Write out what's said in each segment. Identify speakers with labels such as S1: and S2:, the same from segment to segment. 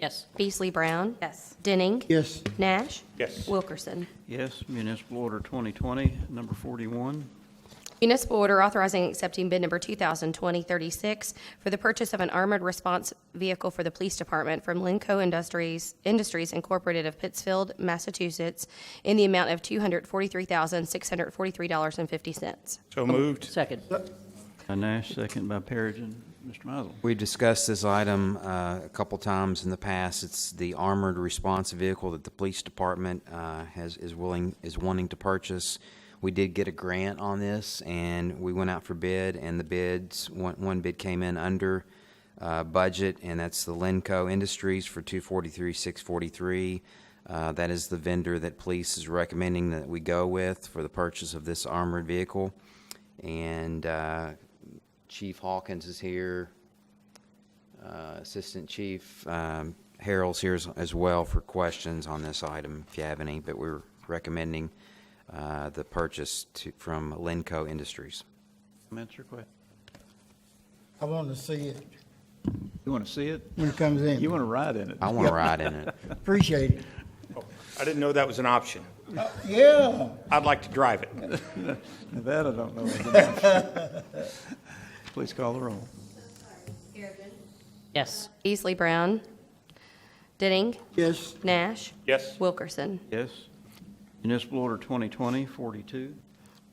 S1: Yes.
S2: Beasley Brown.
S1: Yes.
S2: Denning.
S3: Yes.
S2: Nash.
S4: Yes.
S2: Wilkerson.
S5: Yes, municipal order 2020, number 41.
S2: Municipal order authorizing and accepting bid number 2020-36 for the purchase of an armored response vehicle for the police department from Linco Industries Industries Incorporated of Pittsfield, Massachusetts, in the amount of $243,643.50.
S4: So moved.
S1: Second.
S5: By Nash, second by Perigin. Mr. Mizel.
S6: We discussed this item uh, a couple times in the past. It's the armored response vehicle that the police department uh, has, is willing, is wanting to purchase. We did get a grant on this, and we went out for bid, and the bids, one one bid came in under uh, budget, and that's the Lenco Industries for two forty-three, six forty-three. Uh, That is the vendor that police is recommending that we go with for the purchase of this armored vehicle. And uh, Chief Hawkins is here. Uh, Assistant Chief um, Harrell's here as- as well for questions on this item, if you have any, but we're recommending uh, the purchase to- from Lenco Industries.
S5: Comments or questions?
S3: I want to see it
S5: You want to see it?
S3: when it comes in.
S5: You want to ride in it?
S6: I want to ride in it.
S3: Appreciate it.
S4: Oh, I didn't know that was an option.
S3: Yeah.
S4: I'd like to drive it.
S5: Now That I don't know. is an option. Please call the roll.
S1: Yes.
S2: Beasley Brown. Denning.
S3: Yes.
S2: Nash.
S4: Yes.
S2: Wilkerson.
S5: Yes. Municipal order 2020, 42.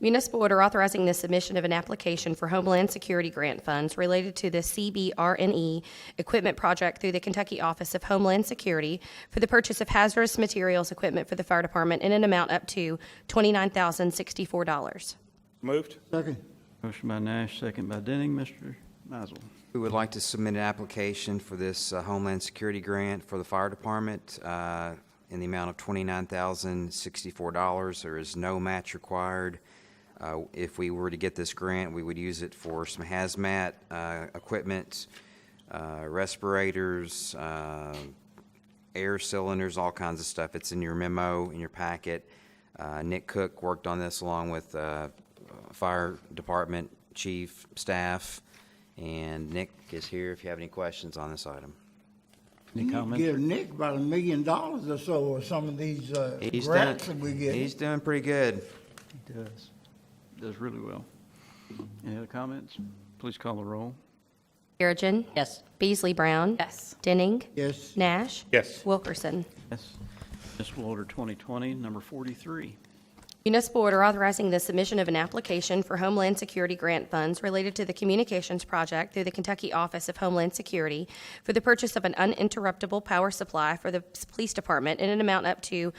S2: Municipal order authorizing the submission of an application for Homeland Security grant funds related to the CBRNE E equipment project through the Kentucky Office of Homeland Security for the purchase of hazardous materials equipment for the fire department in an amount up to $29,064.
S4: Moved.
S3: Second.
S5: Motion by Nash, second by Denning. Mr. Mizel.
S6: We would like to submit an application for this uh, Homeland Security Grant for the Fire Department uh, in the amount of $29,064. There is no match required. Uh, If we were to get this grant, we would use it for some hazmat uh, equipment, uh, respirators, uh, air cylinders, all kinds of stuff. It's in your memo, in your packet. Uh, Nick Cook worked on this along with uh, Fire Department Chief, staff, and Nick is here if you have any questions on this item.
S5: Any comments?
S3: Give Nick about a million dollars or so or some of these uh,
S6: He's done,
S3: grants that we get.
S6: he's doing pretty good.
S5: He does. Does really well. Any other comments? Please call the roll.
S2: Perigin.
S1: Yes.
S2: Beasley Brown.
S1: Yes.
S2: Denning.
S3: Yes.
S2: Nash.
S4: Yes.
S2: Wilkerson.
S5: Yes. Municipal order 2020, number 43.
S2: Municipal order authorizing the submission of an application for Homeland Security grant funds related to the communications project through the Kentucky Office of Homeland Security for the purchase of an uninterruptible power supply for the police department in an amount up to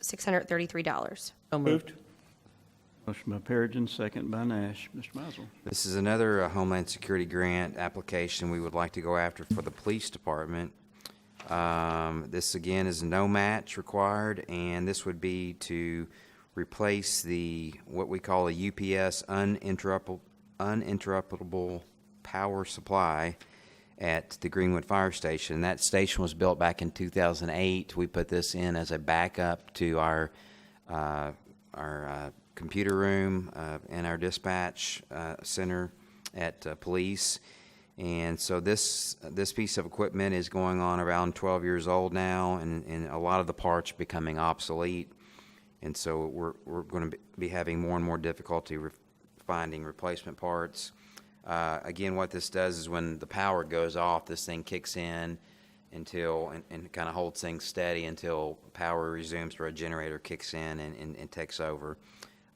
S2: $100,633.
S1: So moved.
S5: Motion by Perigin, second by Nash. Mr. Mizel.
S6: This is another uh, Homeland Security grant application we would like to go after for the police department. Um, This, again, is no match required, and this would be to replace the, what we call a UPS uninterruptible, uninterruptible power supply at the Greenwood Fire Station. That station was built back in 2008. We put this in as a backup to our uh, our uh, computer room uh, and our dispatch uh, center at uh, police. And so this this piece of equipment is going on around 12 years old now, and, and a lot of the parts are becoming obsolete. And so we're, we're going to be having more and more difficulty re- finding replacement parts. Uh, Again, what this does is when the power goes off, this thing kicks in until, and, and kind of holds things steady until power resumes or a generator kicks in and, and, and takes over.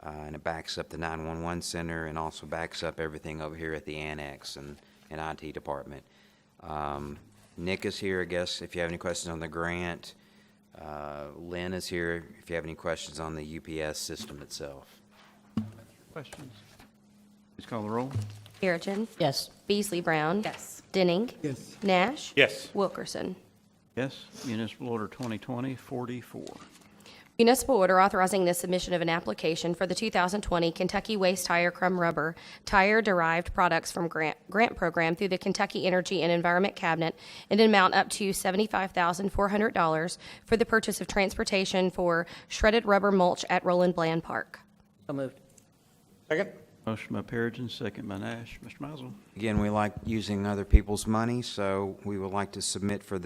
S6: Uh, and it backs up the 911 center and also backs up everything over here at the annex and, and IT department. Um, Nick is here, I guess, if you have any questions on the grant. Uh, Lynn is here if you have any questions on the UPS system itself.
S5: Questions? Please call the roll.
S2: Perigin.
S1: Yes.
S2: Beasley Brown.
S1: Yes.
S2: Denning.
S3: Yes.
S2: Nash.
S4: Yes.
S2: Wilkerson.
S5: Yes, municipal order 2020-44.
S2: Municipal order authorizing the submission of an application for the 2020 Kentucky Waste Tire Crumb Rubber Tire Derived Products from Grant, Grant Program through the Kentucky Energy and Environment Cabinet in an amount up to $75,400 for the purchase of transportation for shredded rubber mulch at Roland Bland Park.
S1: So moved.
S4: Second?
S5: Motion by Perigin, second by Nash. Mr. Mizel.
S6: Again, we like using other people's money, so we would like to submit for